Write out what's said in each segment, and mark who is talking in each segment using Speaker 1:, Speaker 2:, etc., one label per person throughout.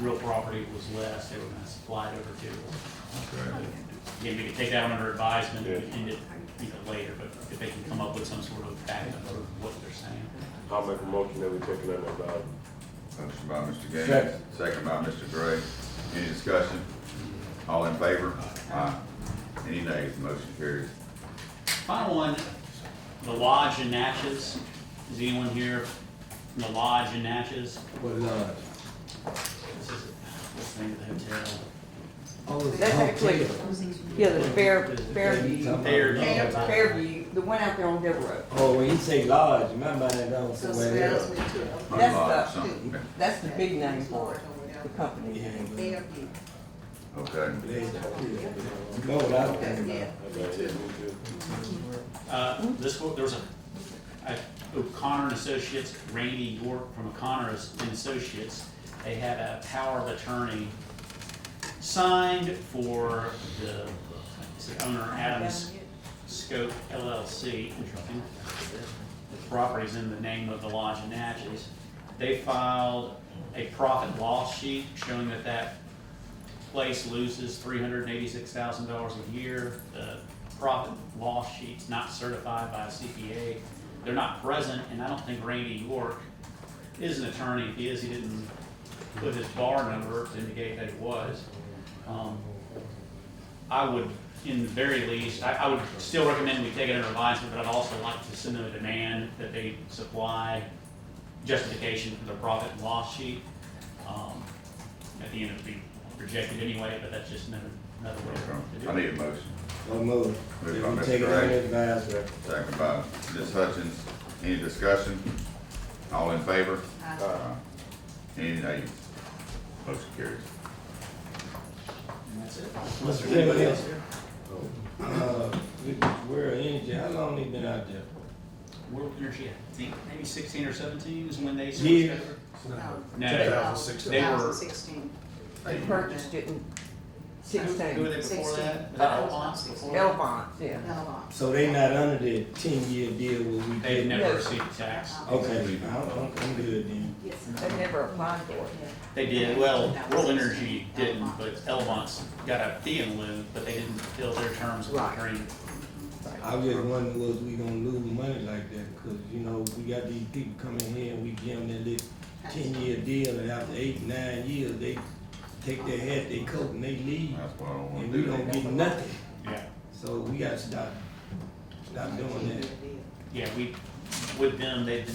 Speaker 1: real property was less, they were gonna supply it over to.
Speaker 2: Okay.
Speaker 1: Again, we could take that under advisement,
Speaker 3: Yeah.
Speaker 1: and it, you know, later, but if they can come up with some sort of backup of what they're saying.
Speaker 3: I'll make a motion that we take it under advisement.
Speaker 2: Motion by Mr. Gaines,
Speaker 4: Second.
Speaker 2: second by Mr. Gray. Any discussion? All in favor? Aye. Any nays? Motion carries.
Speaker 1: Final one, the lodge in Natchez, is anyone here from the lodge in Natchez?
Speaker 4: What lodge?
Speaker 1: This is, what's the name of the hotel?
Speaker 4: Oh, it's
Speaker 5: That's
Speaker 4: Hog
Speaker 5: actually,
Speaker 4: Tail.
Speaker 5: yeah, the Fair, Fairview,
Speaker 1: Fairview.
Speaker 5: Fairview, the one out there on Devil Road.
Speaker 4: Oh, when you say lodge, my mind don't
Speaker 6: So
Speaker 4: somewhere
Speaker 6: Sales
Speaker 4: else.
Speaker 6: went to
Speaker 5: That's
Speaker 2: Lodge,
Speaker 5: the-
Speaker 2: something.
Speaker 5: That's the big name for it, the company.
Speaker 4: Yeah,
Speaker 6: a
Speaker 4: but-
Speaker 6: Fairview.
Speaker 2: Okay.
Speaker 4: You know what I'm thinking
Speaker 6: Yeah.
Speaker 4: about.
Speaker 1: Uh, this, one- there was a, a O'Connor and Associates, Randy York from O'Connor and Associates. They had a power of attorney signed for the, is it owner Adams Scope LLC. Interesting. The property's in the name of the lodge in Natchez. They filed a profit loss sheet showing that that place loses three hundred and eighty-six thousand dollars a year. The profit loss sheet's not certified by a CPA. They're not present, and I don't think Randy York is an attorney. If he is, he didn't put his bar number to indicate that he was. Um, I would, in the very least, I, I would still recommend we take it under advisement, but I'd also like to send them a demand that they supply justification for their profit and loss sheet. Um, At the end, it'd be rejected anyway, but that's just another, another way to do it.
Speaker 2: I need a motion.
Speaker 4: One move.
Speaker 2: Moved
Speaker 4: If
Speaker 2: by
Speaker 4: you
Speaker 2: Mr.
Speaker 4: take it
Speaker 2: Gray.
Speaker 4: under advisement.
Speaker 2: Second by Ms. Hutchins. Any discussion? All in favor? Aye. Any nays? Motion carries.
Speaker 1: And that's it.
Speaker 4: Mr. Anybody else here? Uh, we- we're in, how long they been out there?
Speaker 1: World Energy, I think maybe sixteen or seventeen is when they switched
Speaker 4: Years.
Speaker 1: over. No.
Speaker 6: No,
Speaker 7: 2016.
Speaker 1: They were-
Speaker 6: 2016.
Speaker 5: They purchased it in
Speaker 1: Who were
Speaker 5: sixteen.
Speaker 1: they before that?
Speaker 6: Sixteen.
Speaker 1: Was that Alphonse before? that?
Speaker 5: Elvon, yeah.
Speaker 6: No,
Speaker 4: So they not under the ten-year deal where we
Speaker 1: They've
Speaker 4: did?
Speaker 1: never received a tax.
Speaker 6: Oh.
Speaker 4: Okay, I'm, I'm I'm good then.
Speaker 6: yes.
Speaker 5: They never applied for it.
Speaker 1: They did, well, World Energy didn't, but Elmont's got a fee in lieu, but they didn't fill their terms of
Speaker 5: Right.
Speaker 1: agreement.
Speaker 4: I was just wondering, was we gonna lose money like that? Cause you know, we got these people coming here and we give them that little ten-year deal and after eight, nine years, they take their hat, they coat and they leave.
Speaker 2: That's what I don't wanna
Speaker 4: And we don't
Speaker 2: do.
Speaker 4: get nothing.
Speaker 1: Yeah,
Speaker 4: So we gotta stop, stop doing that.
Speaker 1: yeah, we, with them, they've been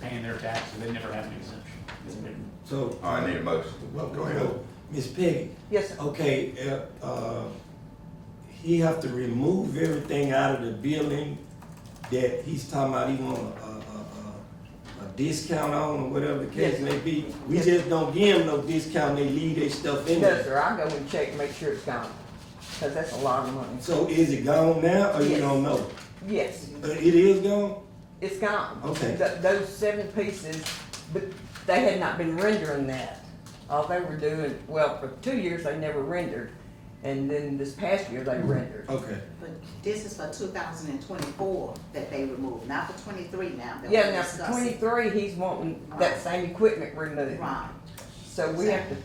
Speaker 1: paying their taxes, they never have an exemption. It's been-
Speaker 4: So.
Speaker 2: All right, I need a motion. Go ahead.
Speaker 4: Miss Peggy,
Speaker 5: Yes, sir.
Speaker 4: okay, uh, uh, he have to remove everything out of the building that he's talking about he want a, a, a, a discount on or whatever the case
Speaker 5: Yes.
Speaker 4: may be. We
Speaker 5: Yes.
Speaker 4: just don't give them no discount, they leave their stuff in
Speaker 5: No,
Speaker 4: there.
Speaker 5: sir, I'll go and check, and make sure it's gone, because that's a lot of money.
Speaker 4: So is it gone now or you
Speaker 5: Yes.
Speaker 4: don't know?
Speaker 5: Yes,
Speaker 4: Uh, It is gone?
Speaker 5: it's gone.
Speaker 4: Okay.
Speaker 5: Th- Those seven pieces, but they had not been rendering that. All they were doing, well, for two years, they never rendered, and then this past year,
Speaker 4: Mm-hmm.
Speaker 5: they rendered.
Speaker 4: Okay,
Speaker 6: But this is for two thousand and twenty-four that they removed, not for twenty-three now that
Speaker 5: Yeah,
Speaker 6: we're
Speaker 5: now for
Speaker 6: discussing.
Speaker 5: twenty-three, he's wanting that same equipment removed.
Speaker 6: Right,
Speaker 5: So we have to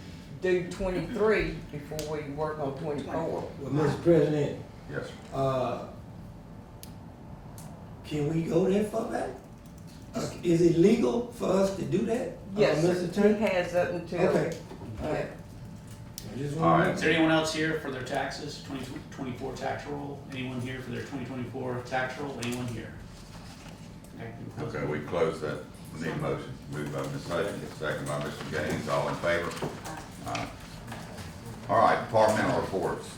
Speaker 5: do twenty-three before we work on twenty-four.
Speaker 4: well,
Speaker 5: Uh-huh.
Speaker 4: Mr. President,
Speaker 2: Yes, sir.
Speaker 4: Uh, Can we go there for that? Uh, Is it legal for us to do that? uh,
Speaker 5: Yes, sir.
Speaker 4: Mr. Attorney?
Speaker 5: He has up until.
Speaker 4: Okay.
Speaker 5: Yeah.
Speaker 4: I just
Speaker 2: All
Speaker 4: wanna-
Speaker 2: right.
Speaker 1: Is there anyone else here for their taxes, twenty twenty-four tax roll? Anyone here for their twenty twenty-four tax roll? Anyone here?
Speaker 2: Okay, we close that. We Need a motion. Moved by Ms. Hutchins, second by Mr. Gaines. All in favor? Aye. All right, departmental reports.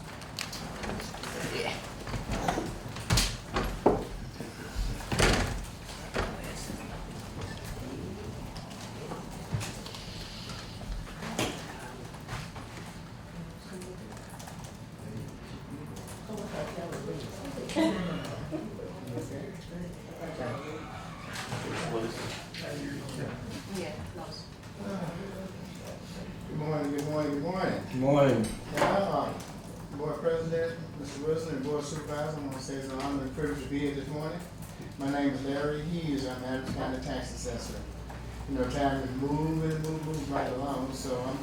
Speaker 6: yeah, close.
Speaker 7: Good morning, good morning, good morning.
Speaker 4: Good Morning.
Speaker 7: Now, um, Board President, Mr. Wilson, and Board Supervisor, I want to say it's an honor and privilege to be here this morning. My name is Larry Hughes, I'm Adams County Tax Assessor. You know, time is moving, moving, moving right along, so I'm